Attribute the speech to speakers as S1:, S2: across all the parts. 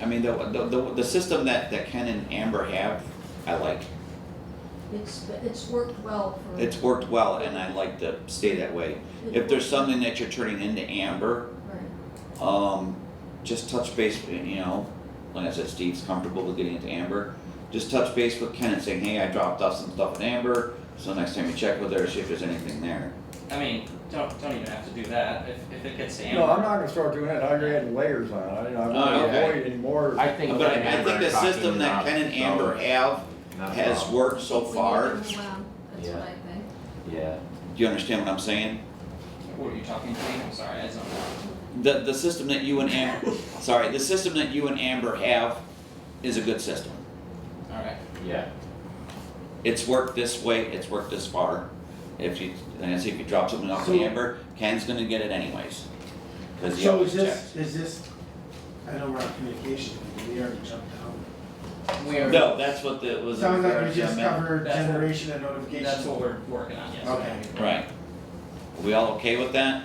S1: I mean, the, the, the, the system that, that Ken and Amber have, I like.
S2: It's, it's worked well for.
S1: It's worked well and I like to stay that way. If there's something that you're turning into Amber,
S2: Right.
S1: um, just touch base, you know, like I said, Steve's comfortable with getting into Amber. Just touch base with Ken and saying, hey, I dropped off some stuff in Amber, so next time you check with her, see if there's anything there.
S3: I mean, don't, don't even have to do that, if, if it gets to Amber.
S4: No, I'm not gonna start doing that, I'm adding layers on it, I- I
S1: Oh,
S4: wanna
S1: okay.
S4: avoid any more.
S5: I think.
S1: But
S5: Ken and
S1: I, I
S5: Amber
S1: think the
S5: are talking
S1: system that
S5: about
S1: Ken and
S5: it, so
S1: Amber have
S5: not a
S1: has
S5: problem.
S1: worked so
S2: We
S1: far.
S2: need to move on. That's what I think.
S5: Yeah,
S1: Do you understand what I'm saying?
S3: What are you talking to me? I'm sorry, I just don't know.
S1: The, the system that you and Amber, sorry, the system that you and Amber have is a good system.
S3: Alright,
S5: yeah,
S1: It's worked this way, it's worked this far. If you, and I see if you drop something off to
S6: So-
S1: Amber, Ken's gonna get it anyways. Cause he
S6: So
S1: always
S6: is
S1: checks.
S6: this, is this, I know we're on communication, but we already jumped out.
S3: we are,
S1: No, that's what the, was.
S6: Sounds like we just
S1: amendment.
S6: covered
S3: That's what-
S6: generation and notification.
S3: that's what we're working on, yes.
S6: Okay.
S1: Right. Are we all okay with that?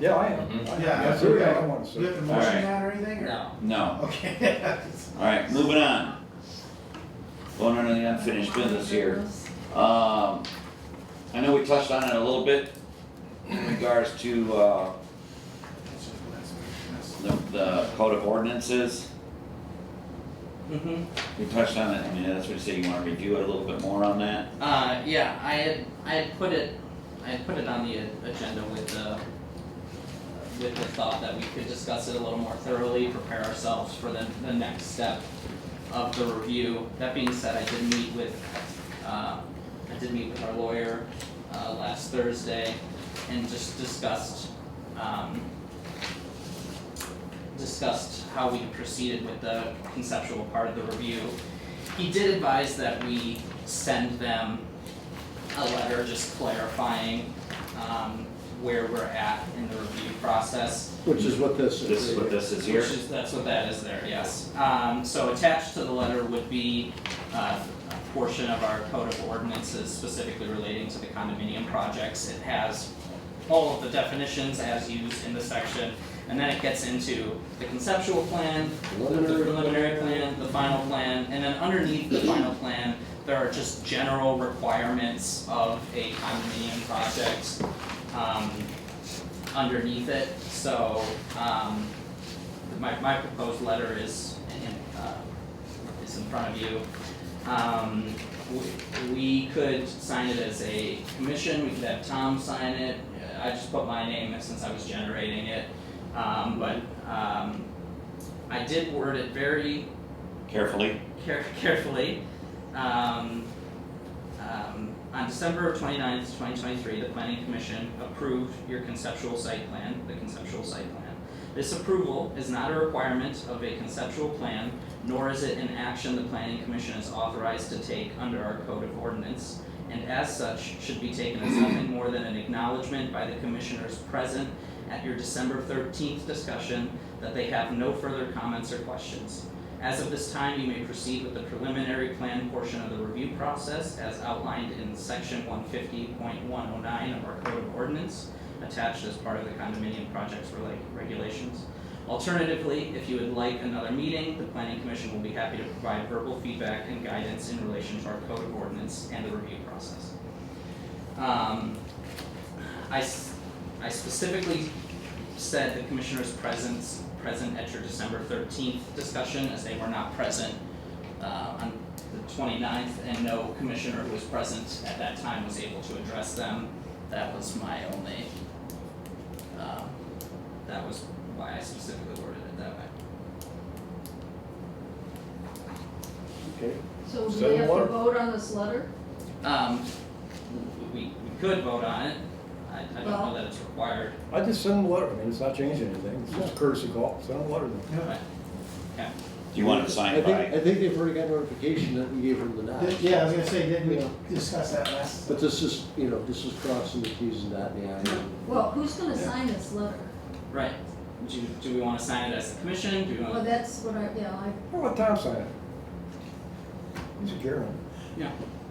S4: Yeah, I am.
S5: Mhm.
S4: I-
S6: Yeah,
S4: Absolutely, I
S6: okay.
S4: don't wanna
S6: Do you
S4: see.
S6: have a
S1: All right.
S6: motion on or anything, or?
S3: No,
S1: No.
S6: Okay.
S1: Alright, moving on. Going on to the unfinished business here. Um, I know we touched on it a little bit in regards to, uh, the, the code of ordinances.
S3: mm-hmm.
S1: We touched on it, I mean, that's what you said, you wanna review it a little bit more on that?
S3: Uh, yeah, I had, I had put it, I had put it on the a- agenda with the, with the thought that we could discuss it a little more thoroughly, prepare ourselves for the, the next step of the review. That being said, I did meet with, uh, I did meet with our lawyer, uh, last Thursday and just discussed, um, discussed how we proceeded with the conceptual part of the review. He did advise that we send them a letter just clarifying um where we're at in the review process.
S4: Which is what this is.
S1: This is what this is here?
S3: Which is, that's what that is there, yes. Um so attached to the letter would be uh a portion of our code of ordinances specifically relating to the condominium projects. It has all of the definitions as used in the section. And then it gets into the conceptual plan, the preliminary plan, the final plan, and then underneath the final plan, there are just general requirements of a condominium project, um, underneath it, so, um, my, my proposed letter is in, uh, is in front of you. Um, we, we could sign it as a commission, we could have Tom sign it, I just put my name in since I was generating it. Um, but, um, I did word it very
S1: Carefully,
S3: care- carefully. Um, um, on December 29th, 2023, the Planning Commission approved your conceptual site plan, the conceptual site plan. This approval is not a requirement of a conceptual plan, nor is it an action the Planning Commission is authorized to take under our Code of Ordinance, and as such, should be taken as nothing more than an acknowledgement by the commissioners present at your December 13th discussion that they have no further comments or questions. As of this time, you may proceed with the preliminary plan portion of the review process as outlined in section one fifty point one oh nine of our code of ordinance attached as part of the condominium projects rela- regulations. Alternatively, if you would like another meeting, the planning commission will be happy to provide verbal feedback and guidance in relation to our code of ordinance and the review process. Um, I s- I specifically said the commissioners presence, present at your December thirteenth discussion, as they were not present uh on the 29th, and no commissioner who was present at that time was able to address them. That was my only, um, that was why I specifically worded it that way.
S4: Okay.
S2: So do
S4: Send
S2: we have to
S4: water.
S2: vote on this letter?
S3: Um, we, we could vote on it, I, I don't know
S2: Well-
S3: that it's required,
S4: I just send them a letter, I mean, it's not changing anything, it's just a courtesy call, send them a letter. then.
S3: but, yeah.
S1: do you want it
S7: I
S1: signed
S7: think,
S1: by?
S7: I think they've already got notification that we gave them the nod.
S6: Th- Yeah, I was gonna say, didn't we discuss that last?
S7: But this is, you know, this is crossing the T's and dotting the I's.
S2: Well, who's gonna sign this letter?
S3: Right, do, do we wanna sign it as a commission, do we
S2: Well,
S1: Uh,
S3: wanna,
S2: that's what I, yeah, I,
S4: Well, let Tom sign it. He's a German.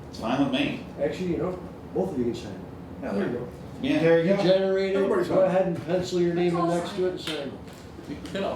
S1: It's fine with me,
S7: Actually, you know, both of you can sign it.
S4: Yeah, there you go.
S1: yeah.
S6: There you go.
S7: Generated,
S4: Everybody's
S7: go
S4: on it.
S7: ahead and pencil your name in
S2: Let's all
S7: next to it and sign it.
S3: we could all